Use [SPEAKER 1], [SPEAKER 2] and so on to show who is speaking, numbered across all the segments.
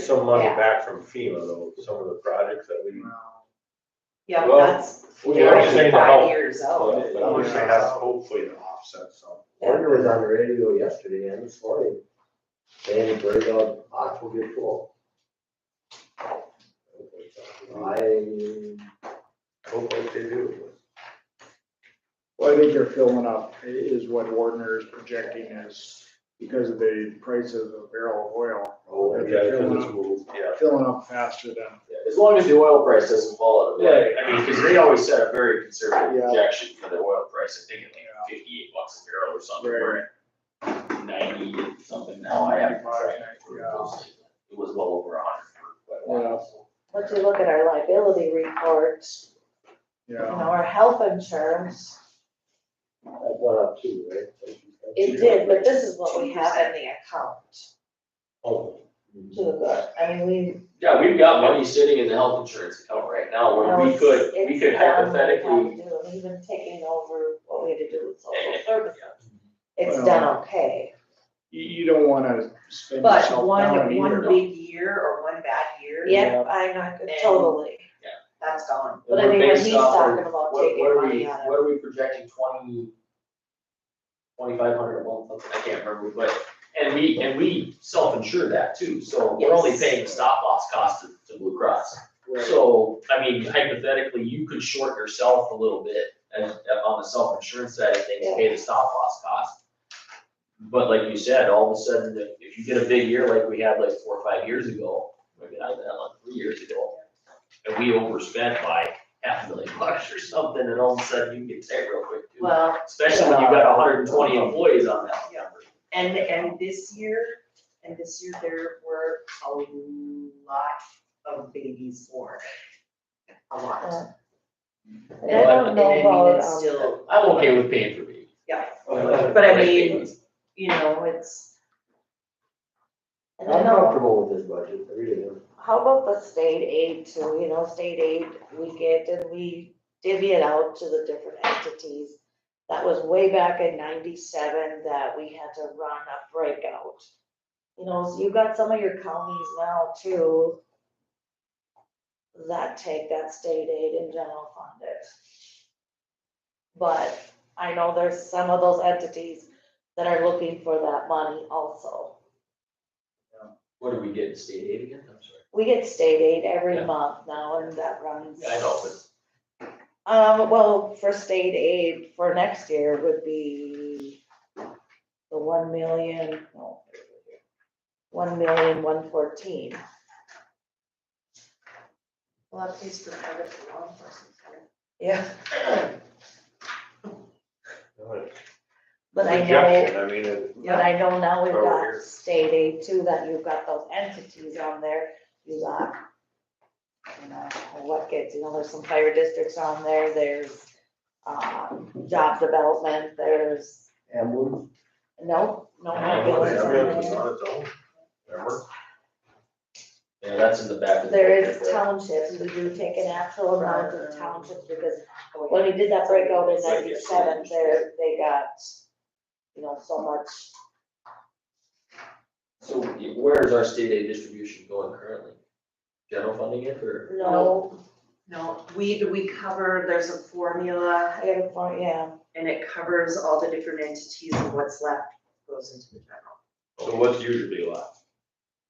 [SPEAKER 1] some money
[SPEAKER 2] Yeah.
[SPEAKER 1] back from FEMA though, some of the projects that we.
[SPEAKER 2] Yeah,
[SPEAKER 1] Well,
[SPEAKER 2] that's,
[SPEAKER 1] we
[SPEAKER 2] they're
[SPEAKER 1] already
[SPEAKER 2] already
[SPEAKER 1] say to
[SPEAKER 2] five
[SPEAKER 1] help,
[SPEAKER 2] years
[SPEAKER 1] but
[SPEAKER 2] old.
[SPEAKER 1] it- I would say that's hopefully to offset some.
[SPEAKER 3] Warner was on the radio yesterday and this morning, saying bird dog box will get full. I hope that they do.
[SPEAKER 4] Well, I think they're filling up i- is what Wardner is projecting is because of the prices of barrel of oil,
[SPEAKER 3] Oh,
[SPEAKER 1] Yeah, because it's moved, yeah.
[SPEAKER 4] filling up faster than.
[SPEAKER 5] As long as the oil price doesn't fall out of whack, I mean, because they always set a very conservative
[SPEAKER 4] Yeah.
[SPEAKER 5] projection for the oil price, I think it's like fifty-eight bucks a barrel or something, we're at ninety something now, I have. It was well over a hundred for quite a while.
[SPEAKER 2] Once you look at our liability report, you know,
[SPEAKER 4] Yeah,
[SPEAKER 2] our health insurance,
[SPEAKER 3] That went up too, right?
[SPEAKER 2] it did, but this is what we have in the account
[SPEAKER 3] Oh.
[SPEAKER 2] to the good. I mean, we.
[SPEAKER 5] Yeah, we've got money sitting in the health insurance account right now,
[SPEAKER 2] you know,
[SPEAKER 5] where we
[SPEAKER 2] it's-
[SPEAKER 5] could, we
[SPEAKER 2] it's
[SPEAKER 5] could
[SPEAKER 2] done what we
[SPEAKER 5] hypothetically.
[SPEAKER 2] had to do, and Even taking over what we had to do with social services,
[SPEAKER 5] Eh, Yeah.
[SPEAKER 2] it's
[SPEAKER 4] Well-
[SPEAKER 2] done okay.
[SPEAKER 4] you, you don't wanna spend
[SPEAKER 6] But
[SPEAKER 4] yourself
[SPEAKER 6] one,
[SPEAKER 4] down
[SPEAKER 6] one
[SPEAKER 4] either.
[SPEAKER 6] big year or one bad year.
[SPEAKER 2] Yeah, I'm not,
[SPEAKER 6] And-
[SPEAKER 2] totally,
[SPEAKER 6] That's gone.
[SPEAKER 2] but I
[SPEAKER 5] we're
[SPEAKER 2] mean, when
[SPEAKER 5] based
[SPEAKER 2] he's
[SPEAKER 5] off of-
[SPEAKER 2] talking about
[SPEAKER 5] What, what
[SPEAKER 2] taking
[SPEAKER 5] are we,
[SPEAKER 2] money out of.
[SPEAKER 5] what are we projecting, twenty, twenty-five hundred a month, something, I can't remember, but, and we, and we self-insure that too, so we're only
[SPEAKER 2] Yes.
[SPEAKER 5] paying the stop loss cost to, to Blue Cross.
[SPEAKER 4] Right.
[SPEAKER 5] So, I mean, hypothetically, you could short yourself a little bit, and, uh, on the self-insurance side of things, pay the stop loss cost. But like you said, all of a sudden, if- if you get a big year like we had like four or five years ago, maybe not that long, three years ago, and we overspent by half a million bucks or something, and all of a sudden you get tight real quick too.
[SPEAKER 6] Well,
[SPEAKER 5] Especially when you've got hundred and twenty employees on that number.
[SPEAKER 6] and, and this year, and this year there were a lot of babies born. A lot.
[SPEAKER 2] And I don't
[SPEAKER 6] And I
[SPEAKER 2] know
[SPEAKER 6] mean,
[SPEAKER 2] about,
[SPEAKER 6] it's
[SPEAKER 2] um,
[SPEAKER 6] still,
[SPEAKER 5] I'm okay with paying for me.
[SPEAKER 6] yeah,
[SPEAKER 5] But
[SPEAKER 6] I mean- you know, it's,
[SPEAKER 2] and I
[SPEAKER 3] I'm
[SPEAKER 2] know-
[SPEAKER 3] comfortable with this budget, I really am.
[SPEAKER 2] How about the state aid too, you know, state aid we get and we divvy it out to the different entities. That was way back in ninety-seven that we had to run a breakout. You know, so you've got some of your counties now too that take that state aid and general fund it. But I know there's some of those entities that are looking for that money also.
[SPEAKER 5] What do we get in state aid again? I'm sorry.
[SPEAKER 2] We get state aid every
[SPEAKER 5] Yeah.
[SPEAKER 2] month now and that runs.
[SPEAKER 5] Yeah, I know, but
[SPEAKER 2] Um, well, for state aid for next year would be the one million, no. One million, one fourteen.
[SPEAKER 6] well, that pays for private law enforcement.
[SPEAKER 2] Yeah,
[SPEAKER 1] Not a
[SPEAKER 2] but I know,
[SPEAKER 1] Projection, I mean, it-
[SPEAKER 2] but I know now we've
[SPEAKER 1] Over
[SPEAKER 2] got
[SPEAKER 1] here.
[SPEAKER 2] state aid too, that you've got those entities on there, you got. you know, What gets, you know, there's some fire districts on there, there's, um, job development, there's
[SPEAKER 3] Emblem,
[SPEAKER 2] No, no,
[SPEAKER 5] Yeah,
[SPEAKER 2] no.
[SPEAKER 5] well,
[SPEAKER 2] buildings
[SPEAKER 5] yeah,
[SPEAKER 2] are
[SPEAKER 5] yeah,
[SPEAKER 2] there.
[SPEAKER 1] it's on its own. Remember?
[SPEAKER 5] Yeah, that's in the back of the.
[SPEAKER 2] There is townships, we do take an actual amount of townships, because when we did that breakout in
[SPEAKER 5] Right, yes.
[SPEAKER 2] ninety-seven, there, they got, you know, so much.
[SPEAKER 5] So where is our state aid distribution going currently? General funding it or?
[SPEAKER 2] No,
[SPEAKER 6] No, we, we cover, there's a formula
[SPEAKER 2] I got a point, yeah,
[SPEAKER 6] and it covers all the different entities and what's left goes into the general.
[SPEAKER 1] So what's usually left?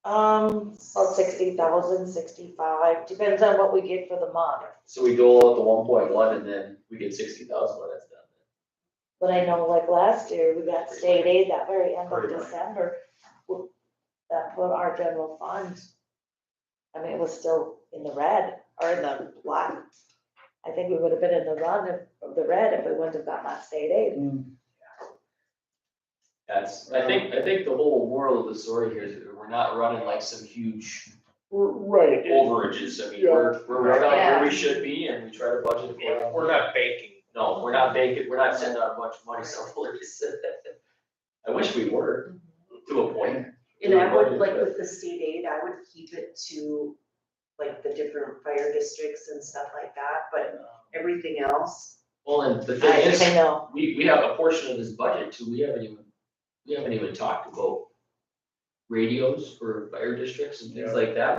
[SPEAKER 2] um, about sixty thousand, sixty-five, depends on what we get for the month.
[SPEAKER 5] So we dole out the one point one and then we get sixty thousand when that's done.
[SPEAKER 2] But I know like last year, we got state aid that very end of
[SPEAKER 1] Pretty much.
[SPEAKER 2] December. w- That put our general fund, I mean, it was still in the red or in the black. I think we would have been in the run of, of the red if we wouldn't have gotten that state aid.
[SPEAKER 4] Mm.
[SPEAKER 5] That's, I think, I think the whole moral of the story here is that we're not running like some huge
[SPEAKER 4] Right, and-
[SPEAKER 5] overages. I mean, we're, we're right on where we should be and we try to budget. accordingly.
[SPEAKER 1] We're not baking.
[SPEAKER 5] No, we're not making, we're not sending out a bunch of money somewhere. I wish we were, to a point.
[SPEAKER 6] And I would, like with the state aid, I would keep it to like the different fire districts and stuff like that, but
[SPEAKER 1] Mm-hmm.
[SPEAKER 6] everything else.
[SPEAKER 5] Well, and the
[SPEAKER 2] I,
[SPEAKER 5] thing is.
[SPEAKER 2] I know.
[SPEAKER 5] we, we have a portion of this budget too, we haven't even, we haven't even talked about radios for fire districts and things
[SPEAKER 4] Yeah.
[SPEAKER 5] like that,